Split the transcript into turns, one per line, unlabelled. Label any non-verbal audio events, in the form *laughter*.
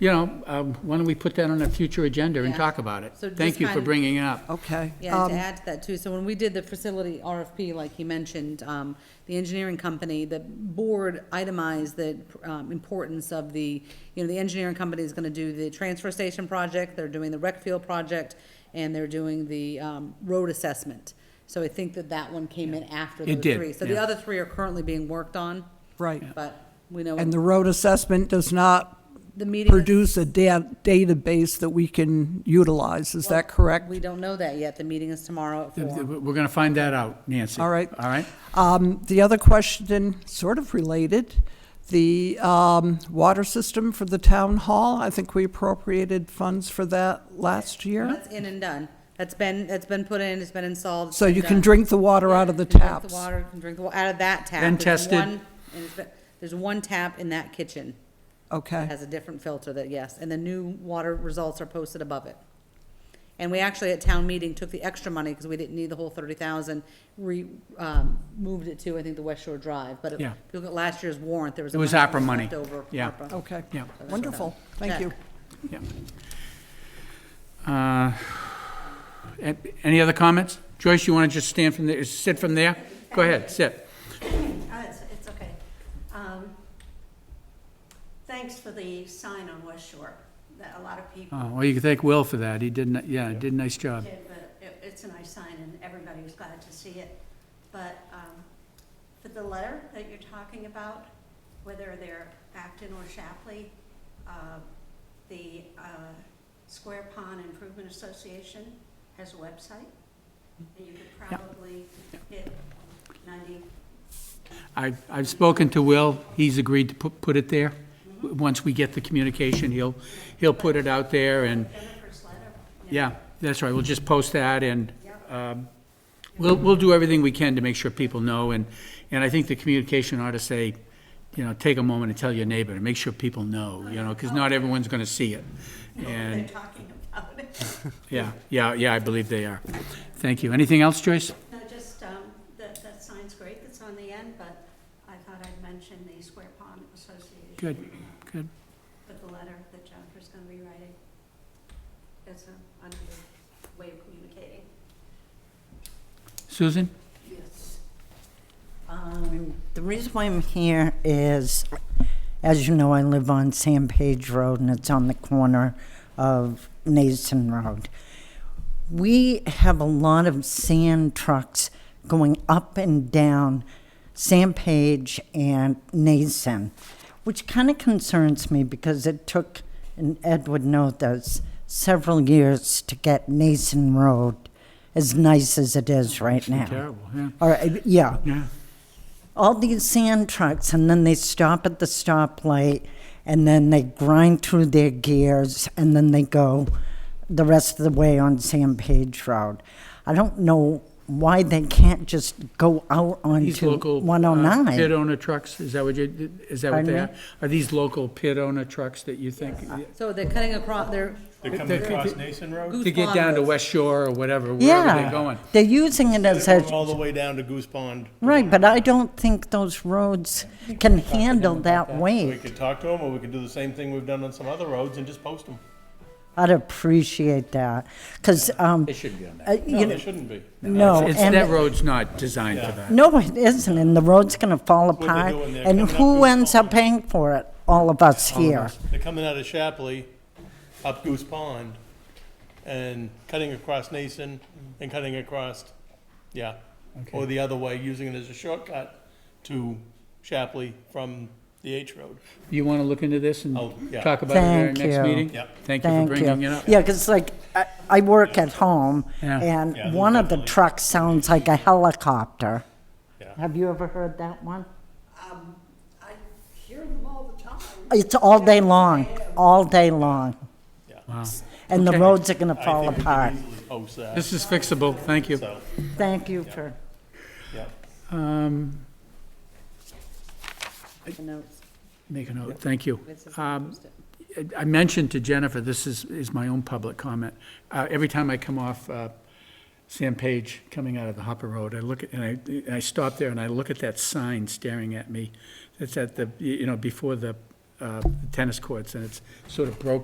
you know, um, why don't we put that on a future agenda and
Yeah.
talk about it?
So just
Thank you for
kind of-
bringing it up.
Okay.
Yeah,
Um,
to add to that too, so when we did the facility RFP, like he mentioned, um, the engineering company, the board itemized the, um, importance of the, you know, the engineering company is gonna do the transfer station project, they're doing the rec field project, and they're doing the, um, road assessment. So I think that that one came in after those
It did,
three. So the
yeah.
other three are currently being worked on,
Right.
but we know
And the road assessment does not
the meeting.
produce a da- database that we can utilize, is that correct?
We don't know that yet, the meeting is tomorrow at
Th- th-
four.
We're going to find that out, Nancy.
All right.
All right?
Um, The other question, sort of related, the um, water system for the town hall, I think we appropriated funds for that last year.
That's in and done. That's been, that's been put in, it's been installed. it's
So
been
you can
done.
drink the water out of the
You can drink
taps.
The water, you can drink the, wa- out of that tap.
Been
There's
tested.
one- and it's been- There's one tap in that kitchen that
Okay,
has a different filter that, yes, and the new water results are posted above it. And we actually at town meeting took the extra money because we didn't need the whole thirty thousand. We, um, moved it to, I think, the West Shore Drive, but if
Yeah.
you look at last year's warrant, there was.
It was
amount
APRA
that was
money.
left Over.
Yeah.
APRA.
okay.
Yeah.
Wonderful,
Yeah.
thank you.
Uh, a- Any other comments? Joyce, you want to just stand from there, sit from there? Go ahead, sit.
Oh, it's, it's okay. Um, Thanks for the sign on West Shore, that a lot of people
Oh, Well, you can thank Will for that. He did, ni- yeah, did a nice job.
did, but it, it's a nice sign and everybody was glad to see it. But, um, for the letter that you're talking about, whether they're Acton or Shapley, uh, the, uh, Square Pond Improvement Association has a website. And you could probably hit ninety
I- I've spoken to Will, he's agreed to pu- put it there. W- Once we get the communication, he'll, he'll put it out there, and,
Jennifer's letter.
yeah, that's right, we'll just post that, and um, we'll, we'll do everything we can to make sure people know, and, and I think the communication ought to say, you know, take a moment and tell your neighbor, and make sure people know, you know, because not everyone's going to see it.
*laughs* They're
And,
talking about *laughs* it.
yeah, yeah, yeah, I believe they are. Thank you. Anything else, Joyce?
No, just, um, that, that sign's great that's on the end, but I thought I'd mention the Square Pond Association.
Good, good.
With the letter that Jennifer's gonna be writing. That's a, another way of communicating.
Susan?
Yes. Um, The reason why I'm here is, as you know, I live on San Page Road, and it's on the corner of Nason Road. We have a lot of sand trucks going up and down San Page and Nason, which kind of concerns me because it took, and Ed would know this, several years to get Nason Road as nice as it is right now.
Terrible, yeah.
All right, yeah.
Yeah,
All these sand trucks, and then they stop at the stoplight, and then they grind through their gears, and then they go the rest of the way on San Page Road. I don't know why they can't just go out
These
onto
local uh, pit
109.
owner trucks, is that what you, is that what they
Pardon
are?
me?
Are these local pit owner trucks that you think?
So they're cutting across, they're.
They're
They're-
coming across Nason Road?
Goose
To get
Pond
down to
Road.
West Shore or whatever, wherever
Yeah.
they're going.
They're using it as
They're going All
a,
the way down to Goose Pond.
right, but I don't think those roads can handle that
We
weight.
could talk to them, or we could do the same thing we've done on some other roads and just post them.
I'd appreciate that, because, um,
They should be on that.
uh,
No,
you
they
know,
shouldn't be.
no.
It's,
Oh, and-
that road's not designed for that.
No, it isn't, and the road's gonna fall
they're
apart,
doing there,
and
coming up
who
Goose
ends
Pond.
up paying for it? All of us here.
They're coming out of Shapley, up Goose Pond, and cutting across Nason, and cutting across, yeah. Or the other way, using it as a shortcut to Shapley from the H Road.
You want to look into this and
Oh, yeah.
talk about it at our
Thank
next
you.
meeting?
Yep.
Thank you for
Thank
bringing it
you.
up.
Yeah, 'cause like, I, I work at home,
Yeah.
Yeah,
and
those
one of the
definitely-
trucks sounds like a helicopter.
Yeah.
Have you ever heard that one?
Um, I hear them all the time.
It's all day long, all day long,
Yeah.
and the
Okay.
roads are gonna
I
fall
think we could
apart.
easily Post that,
This is fixable, thank you.
so,
Thank you for,
yeah.
Um,
The notes.
Make a note, thank you.
This is-
Um, I- I mentioned to Jennifer, this is, is my own public comment. Uh, every time I come off, uh, Sam Page coming out of the Hopper Road, I look at, and I, and I stop there and I look at that sign staring at me. It's at the, you know, before the, uh, tennis courts, and it's sort of broken